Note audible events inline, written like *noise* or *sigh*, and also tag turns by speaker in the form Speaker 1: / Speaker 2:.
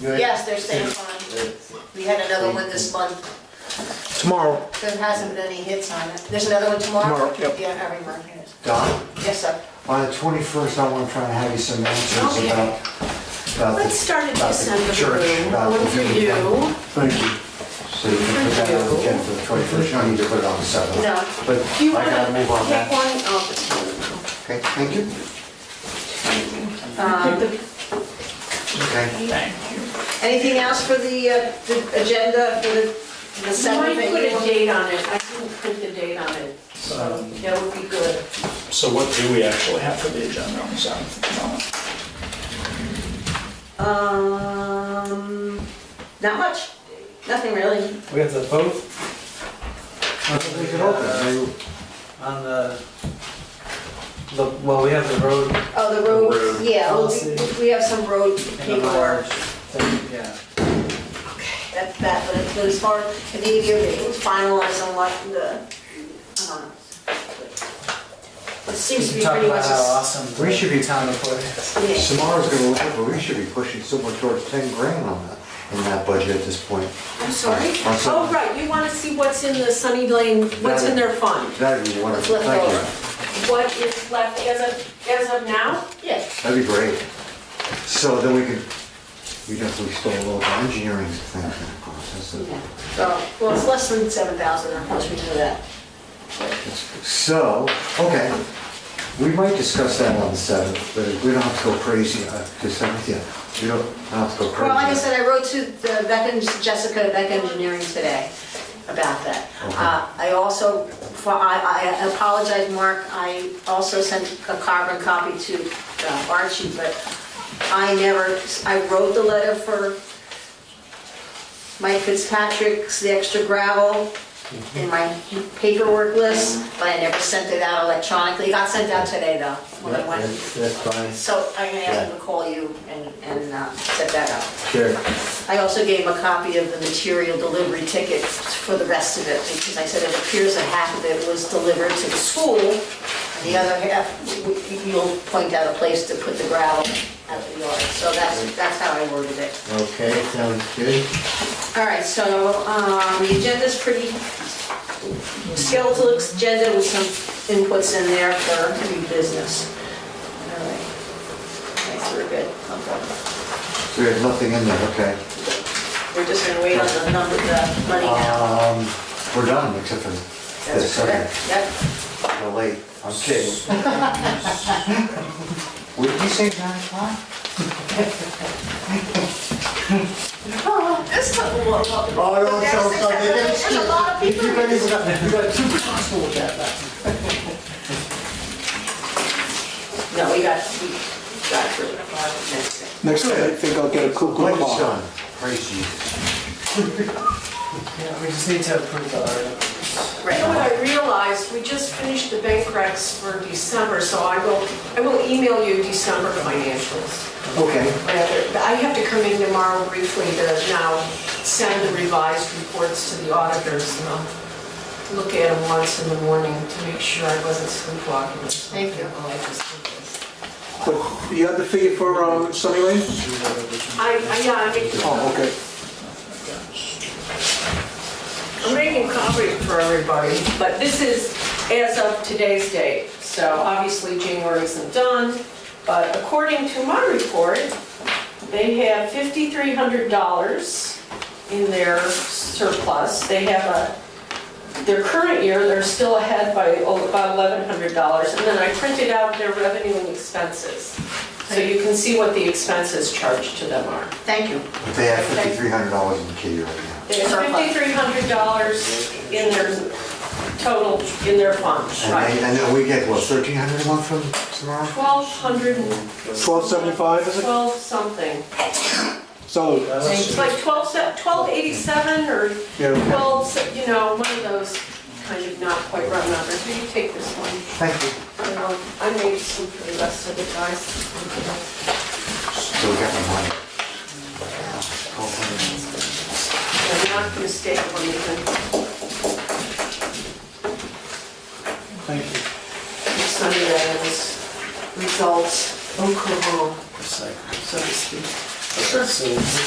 Speaker 1: Good.
Speaker 2: Yes, they're staying fine. We had another one this month.
Speaker 3: Tomorrow,
Speaker 2: There hasn't been any hits on it. There's another one tomorrow?
Speaker 3: Tomorrow, yep.
Speaker 2: Yeah, every month, yes.
Speaker 1: Don,
Speaker 2: Yes, sir.
Speaker 1: on the twenty-first, I want to try and have you some answers
Speaker 4: Okay.
Speaker 1: about, about
Speaker 4: Let's
Speaker 1: the,
Speaker 4: start in
Speaker 1: About the
Speaker 4: December.
Speaker 1: church, about
Speaker 4: One
Speaker 1: the
Speaker 4: for
Speaker 1: meeting.
Speaker 4: you.
Speaker 1: thank you. So you can put that on the agenda for the twenty-first, you don't need to put it on the seventh.
Speaker 2: No.
Speaker 1: But
Speaker 4: Do you
Speaker 1: I
Speaker 4: want to
Speaker 1: gotta
Speaker 4: pick
Speaker 1: move
Speaker 4: one?
Speaker 1: on that.
Speaker 4: Oh,
Speaker 1: Okay, thank you.
Speaker 4: um,
Speaker 1: Okay,
Speaker 2: Anything else for the, uh, the agenda for the, the
Speaker 4: Someone
Speaker 2: seventh?
Speaker 4: put a date on it. I didn't print the date on it, so that would be good.
Speaker 5: So what do we actually have for the agenda on the seventh?
Speaker 4: Um, not much, nothing really.
Speaker 6: We have the vote
Speaker 1: I think we could open.
Speaker 6: on the, the, well, we have the road
Speaker 2: Oh, the road, yeah, well, we- we have some road
Speaker 6: and the
Speaker 2: paperwork.
Speaker 6: mileage thing, yeah.
Speaker 2: That, that, but it's- but as far as the need your finalize on what the, um, it seems to
Speaker 6: We
Speaker 2: be
Speaker 6: talk
Speaker 2: pretty
Speaker 6: about
Speaker 2: much. a
Speaker 6: how
Speaker 2: s-
Speaker 6: awesome.
Speaker 1: We should be-
Speaker 6: the Town report is.
Speaker 2: yeah.
Speaker 1: Samara's gonna look up, but we should be pushing somewhere towards ten grand on that, in that budget at this point.
Speaker 4: I'm sorry.
Speaker 1: On
Speaker 4: Oh,
Speaker 1: something.
Speaker 4: right, you want to see what's in the Sunny Lane, what's in their fund?
Speaker 1: That'd be wonderful,
Speaker 2: Let's
Speaker 1: thank
Speaker 2: look
Speaker 1: you.
Speaker 4: What is left as of, as of now?
Speaker 2: Yeah.
Speaker 1: That'd be great. So then we could, we definitely stole a little engineering thing from the process.
Speaker 2: Yeah. So, well, it's less than seven thousand, of course, we know that.
Speaker 1: So, okay, we might discuss that on the seventh, but we don't have to go crazy, uh, the seventh, yeah. We don't have to go crazy.
Speaker 2: Well, like I said, I wrote to the Beck and Jessica at Beck Engineering today about that.
Speaker 1: Okay.
Speaker 2: Uh, I also, for- I I apologize, Mark, I also sent a carbon copy to uh, Archie, but I never, I wrote the letter for Mike Fitzpatrick's, the extra gravel in my paperwork list, but I never sent it out electronically. It got sent out today, though, when I went.
Speaker 1: That's that's fine,
Speaker 2: So I'm gonna ask him to call you and, and uh, set that up.
Speaker 1: sure.
Speaker 2: I also gave him a copy of the material delivery ticket for the rest of it, because I said it appears that half of it was delivered to the school, and the other half, w- w- you'll point out a place to put the gravel out of the yard, so that's, that's how I worded it.
Speaker 1: Okay, sounds good.
Speaker 4: All right, so um, the agenda's pretty skeletal agenda with some inputs in there for new business. All right. Okay, so we're good. Okay.
Speaker 1: So we have nothing in there, okay.
Speaker 4: We're just gonna wait on the number, the money now.
Speaker 1: Um, we're done, except for the
Speaker 4: That's
Speaker 1: second,
Speaker 4: correct. Yep.
Speaker 1: we're late, I'm kidding.
Speaker 2: *laughs*
Speaker 1: What did you say, nine o'clock?
Speaker 2: This took a while.
Speaker 1: Oh, no, it sounds like it is.
Speaker 2: There's a lot of people.
Speaker 1: You got, you got, you got two possible with that back.
Speaker 4: No, we got, we got through it. Next thing.
Speaker 7: Next time, I think I'll get a cuckoo
Speaker 1: Like
Speaker 7: clock.
Speaker 1: son, praise Jesus.
Speaker 6: Yeah, we just need to approve the articles.
Speaker 4: You know what I realized, we just finished the bank recs for December, so I will, I will email you December financials.
Speaker 1: Okay,
Speaker 4: rather, but I have to come in tomorrow briefly to now send the revised reports to the auditors, and I'll look at them once in the morning to make sure I wasn't sleepwalking. or something.
Speaker 2: Thank you.
Speaker 4: Oh, I just did this.
Speaker 7: But You have the figure for um, Sunny Lane?
Speaker 4: I, I, yeah, I'm
Speaker 7: Oh,
Speaker 4: making,
Speaker 7: okay.
Speaker 4: I'm making copy for everybody, but this is as of today's date, so obviously January isn't done, but according to my report, they have fifty-three hundred dollars in their surplus. They have a, their current year, they're still ahead by oh, about eleven hundred dollars. And then I printed out their revenue and expenses, so you can see what the expenses charged to them are.
Speaker 2: Thank you.
Speaker 1: but they have fifty-three hundred dollars in the kitty right now.
Speaker 4: They have fifty-three hundred dollars in their total, in their funds,
Speaker 1: And they,
Speaker 4: right?
Speaker 1: and then we get, what, thirteen hundred a month from tomorrow?
Speaker 4: Twelve hundred and
Speaker 7: 1275, is it?
Speaker 4: twelve something.
Speaker 7: So,
Speaker 6: That was-
Speaker 4: It's like twelve, twelve eighty-seven or
Speaker 7: yeah,
Speaker 4: twelve, se- you know, one of those kind of not quite round numbers. Will you take this one?
Speaker 1: Thank you.
Speaker 4: And I'll- I made some for the rest of the guys.
Speaker 1: So we got the money. Twelve hundred.
Speaker 4: I'm not gonna stay one even,
Speaker 6: Thank you.
Speaker 4: Sunday is results, Oklahoma,
Speaker 6: Recycle.
Speaker 4: so to speak.
Speaker 6: So,